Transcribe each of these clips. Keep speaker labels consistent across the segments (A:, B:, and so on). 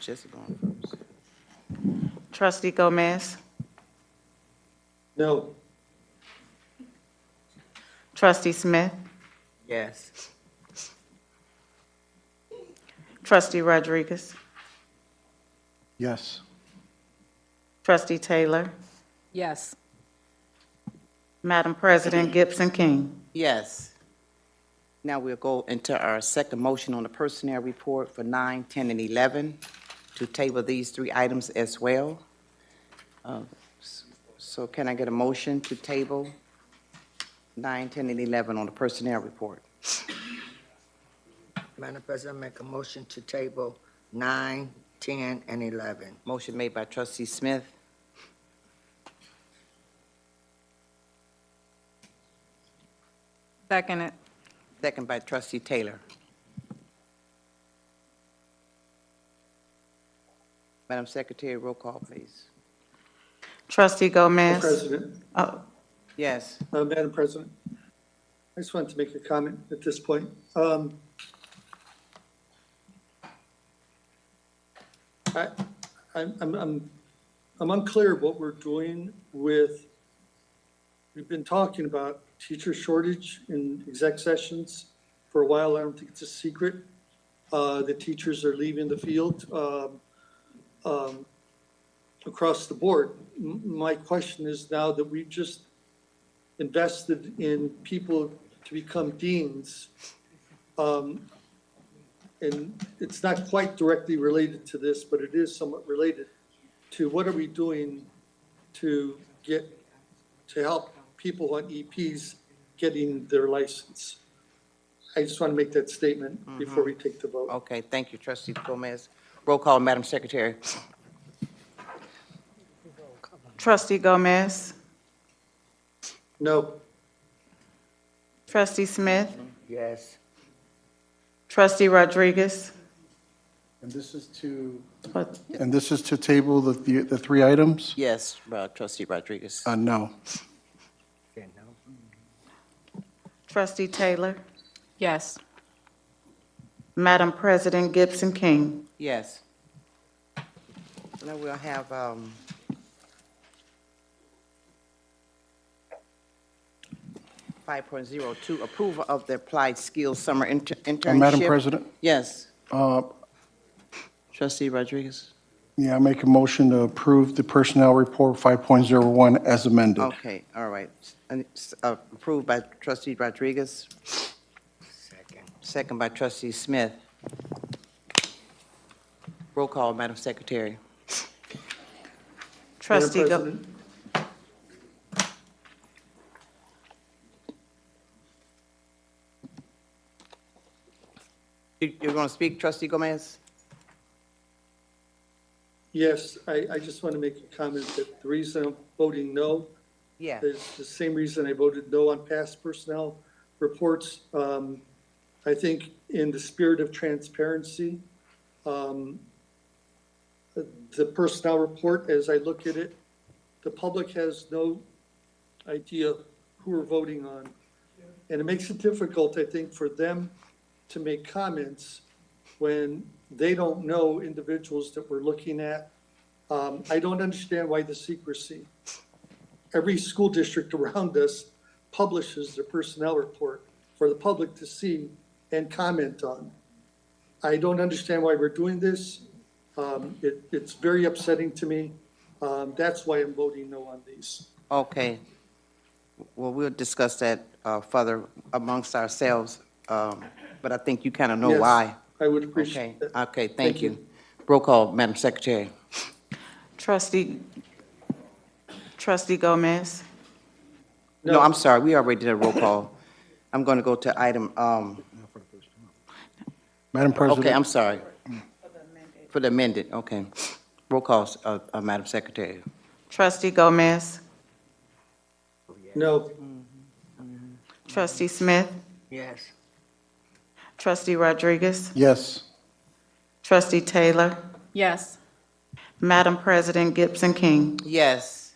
A: Jesse going first.
B: Trustee Gomez.
A: No.
B: Trustee Smith.
A: Yes.
B: Trustee Rodriguez.
C: Yes.
B: Trustee Taylor.
D: Yes.
B: Madam President, Gibson King.
A: Yes. Now we'll go into our second motion on the personnel report for nine, 10, and 11, to table these three items as well. Uh, s- So can I get a motion to table nine, 10, and 11 on the personnel report?
E: Madam President, I make a motion to table nine, 10, and 11.
A: Motion made by trustee Smith.
D: Second it.
A: Second by trustee Taylor. Madam Secretary, roll call, please.
B: Trustee Gomez.
F: President,
B: Oh,
A: Yes,
F: uh, Madam President, I just wanted to make a comment at this point. Um, I, I'm, I'm- I'm, I'm unclear what we're doing with, we've been talking about teacher shortage in exec sessions for a while. I don't think it's a secret. Uh, the teachers are leaving the field, um, um, across the board. M- My question is now that we've just invested in people to become deans. um, And it's not quite directly related to this, but it is somewhat related to what are we doing to get, to help people on EPs getting their license? I just want to make that statement before we take the vote.
A: okay, thank you, trustee Gomez. Roll call, Madam Secretary.
B: Trustee Gomez.
F: No.
B: Trustee Smith.
E: Yes.
B: Trustee Rodriguez.
C: And this is to,
B: Oh,
C: and this is to table the- the, the three items?
A: Yes, uh, trustee Rodriguez.
C: Uh, no.
E: Okay, no.
B: Trustee Taylor.
D: Yes.
B: Madam President, Gibson King.
A: Yes. Now we'll have, um, five point zero two, approval of the applied skills summer inter-
C: Uh,
A: internship.
C: Madam President,
A: Yes,
C: uh,
A: trustee Rodriguez.
C: yeah, I make a motion to approve the personnel report 5.01 as amended.
A: Okay, all right. And it's, uh, approved by trustee Rodriguez,
E: Second.
A: second by trustee Smith. Roll call, Madam Secretary.
F: Madam
B: Trustee, Go-
F: President,
A: You, you're gonna speak, trustee Gomez?
F: Yes, I, I just want to make a comment that the reason I'm voting no
A: Yeah.
F: is the same reason I voted no on past personnel reports. Um, I think in the spirit of transparency, um, the the personnel report, as I look at it, the public has no idea who we're voting on. And it makes it difficult, I think, for them to make comments when they don't know individuals that we're looking at. Um, I don't understand why the secrecy every school district around us publishes their personnel report for the public to see and comment on. I don't understand why we're doing this. Um, it, it's very upsetting to me. Um, that's why I'm voting no on these.
A: Okay. Well, we'll discuss that uh, further amongst ourselves, um, but I think you kind of know
F: Yes,
A: why.
F: I would
A: Okay, uh,
F: appreciate that.
A: okay, thank
F: Thank you.
A: you. Roll call, Madam Secretary.
B: trustee, trustee Gomez.
A: No, I'm sorry, we already did a roll call. I'm going to go to item, um,
C: Madam
A: okay, I'm
C: President,
A: sorry. For the amended, okay. Roll call, uh, uh, Madam Secretary.
B: Trustee Gomez.
F: No,
B: Trustee Smith.
E: Yes.
B: Trustee Rodriguez.
C: yes.
B: Trustee Taylor.
D: Yes.
B: Madam President, Gibson King.
A: Yes.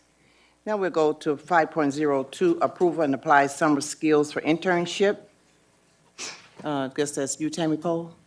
A: Now we'll go to 5.02, approval and apply summer skills for internship. Uh, Guess that's you, Tammy Cole?